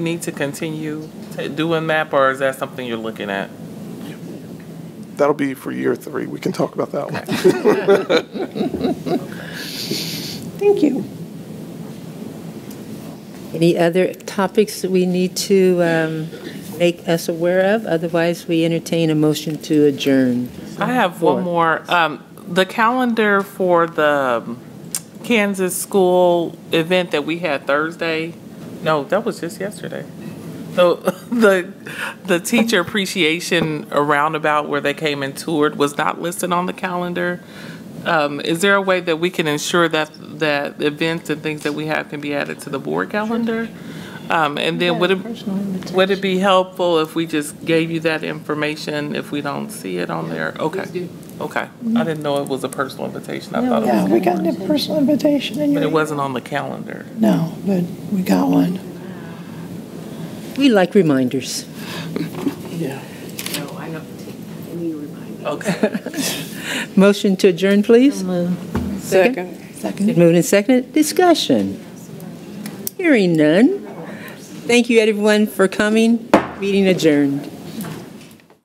need to continue t- doing that, or is that something you're looking at? That'll be for year three. We can talk about that one. Thank you. Any other topics that we need to um, make us aware of? Otherwise, we entertain a motion to adjourn. I have one Four. more. Um, the calendar for the um, Kansas school event that we had Thursday. No, that was just yesterday. The the the teacher appreciation roundabout where they came and toured was not listed on the calendar. Um, is there a way that we can ensure that that events and things that we have can be added to the board calendar? Um, and then would it Would it be helpful if we just gave you that information if we don't see it on there? Okay. Okay. I didn't know it was a personal invitation. I thought it Mm-hmm. Yeah, was, we got a personal invitation and but it you, wasn't on the calendar. no, but we got one. We like reminders. No, I don't think, I need to remind me. Okay. Motion to adjourn, please. Second. Second. Been Moved and seconded. Discussion. Hearing none. Thank you, everyone, for coming. Meeting adjourned.